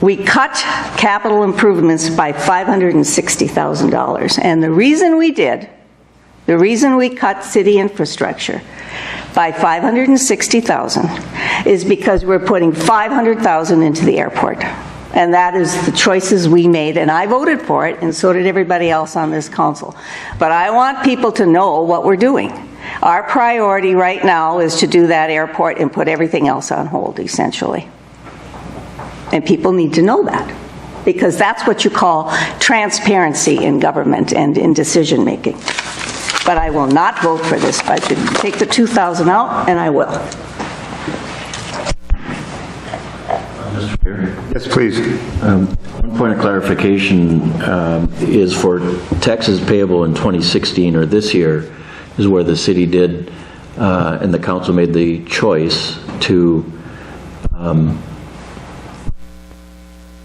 we cut capital improvements by $560,000. And the reason we did, the reason we cut city infrastructure by 560,000 is because we're putting 500,000 into the airport. And that is the choices we made, and I voted for it, and so did everybody else on this council. But I want people to know what we're doing. Our priority right now is to do that airport and put everything else on hold, essentially. And people need to know that, because that's what you call transparency in government and in decision-making. But I will not vote for this budget. Take the 2,000 out, and I will. Mr. Mayor, Yes, please. um, One point of clarification um, is for taxes payable in 2016 or this year is where the city did, uh, and the council made the choice to um,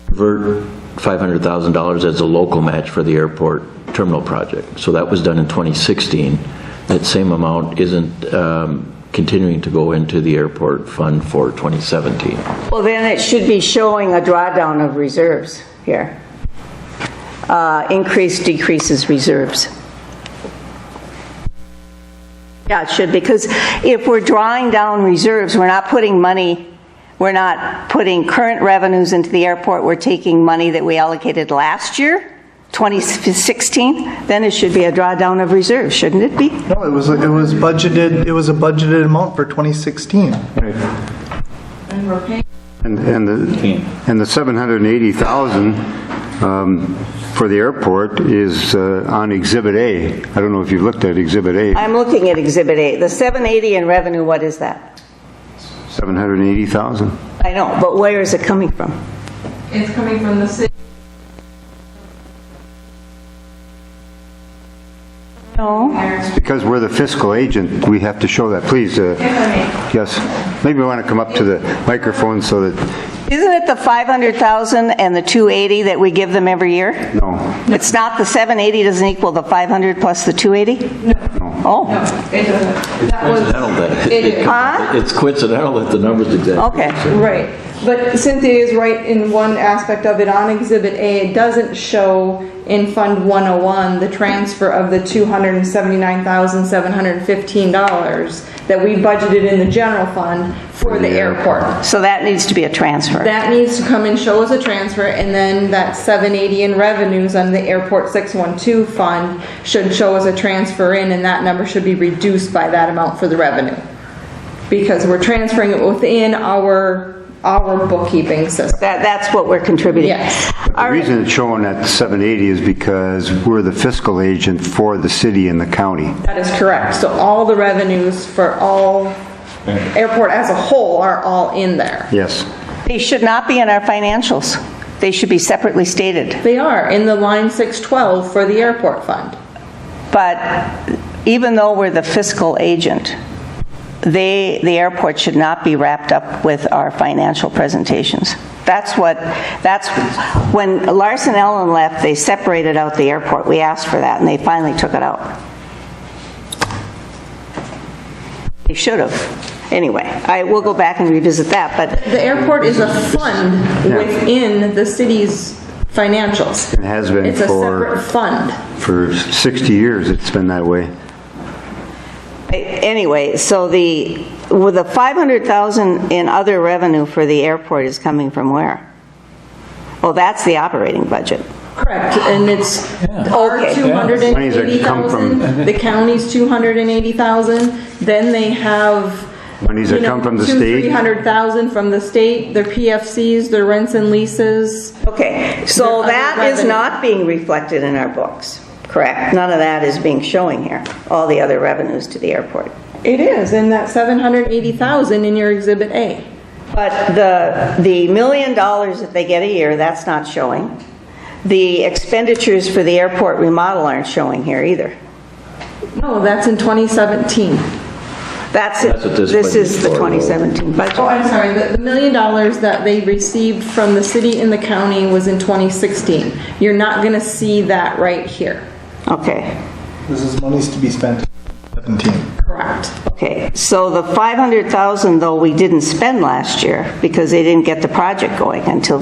convert $500,000 as a local match for the airport terminal project. So that was done in 2016. That same amount isn't um, continuing to go into the airport fund for 2017. Well, then it should be showing a drawdown of reserves here. Uh, Increase decreases reserves. Yeah, it should, because if we're drawing down reserves, we're not putting money, we're not putting current revenues into the airport, we're taking money that we allocated last year, 2016, then it should be a drawdown of reserves, shouldn't it be? No, it was, it was budgeted, it was a budgeted amount for 2016. And, and the, and the 780,000 um, for the airport is uh, on Exhibit A. I don't know if you've looked at Exhibit A. I'm looking at Exhibit A. The 780 in revenue, what is that? 780,000? I know, but where is it coming from? It's coming from the city. No. Because we're the fiscal agent, we have to show that. Please, uh, yes. Maybe you want to come up to the microphone so that, Isn't it the 500,000 and the 280 that we give them every year? no, It's not, the 780 doesn't equal the 500 plus the 280? Oh, It doesn't. That Coincidental that It is. Huh? It's coincidental that the number's exactly. okay. Right, but Cynthia is right in one aspect of it, on Exhibit A, it doesn't show in Fund 101 the transfer of the $279,715 that we budgeted in the general fund for the airport. So that needs to be a transfer. That needs to come and show as a transfer, and then that 780 in revenues on the Airport 612 fund should show as a transfer in, and that number should be reduced by that amount for the revenue. Because we're transferring it within our, our bookkeeping system. That, that's what we're contributing. Yes. All the right. reason it's showing at 780 is because we're the fiscal agent for the city and the county. That is correct. So all the revenues for all, airport as a whole are all in there. Yes. They should not be in our financials. They should be separately stated. They are in the line 612 for the airport fund. But even though we're the fiscal agent, they, the airport should not be wrapped up with our financial presentations. That's what, that's, when Larson Ellen left, they separated out the airport. We asked for that, and they finally took it out. They should have. Anyway, I will go back and revisit that, but The airport is a fund within the city's financials. It has been It's a for- separate fund. For 60 years, it's been that way. Anyway, so the, with the 500,000 in other revenue for the airport is coming from where? Oh, that's the operating budget. Correct, and it's our Okay. Monies that come from- 280,000, the county's 280,000, then they have, Monies you that know, come from the 200,000, state. 300,000 from the state, their PFCs, their rents and leases. Okay, so Other that is revenue. not being reflected in our books, correct? None of that is being showing here, all the other revenues to the airport. It is, and that 780,000 in your Exhibit A. But the, the million dollars that they get a year, that's not showing. The expenditures for the airport remodel aren't showing here either. No, that's in 2017. That's, it. That's what this this budget's is the for. 2017 budget. Oh, I'm sorry, the the million dollars that they received from the city and the county was in 2016. You're not going to see that right here. Okay. This is monies to be spent in 17. Correct. Okay, so the 500,000, though, we didn't spend last year because they didn't get the project going until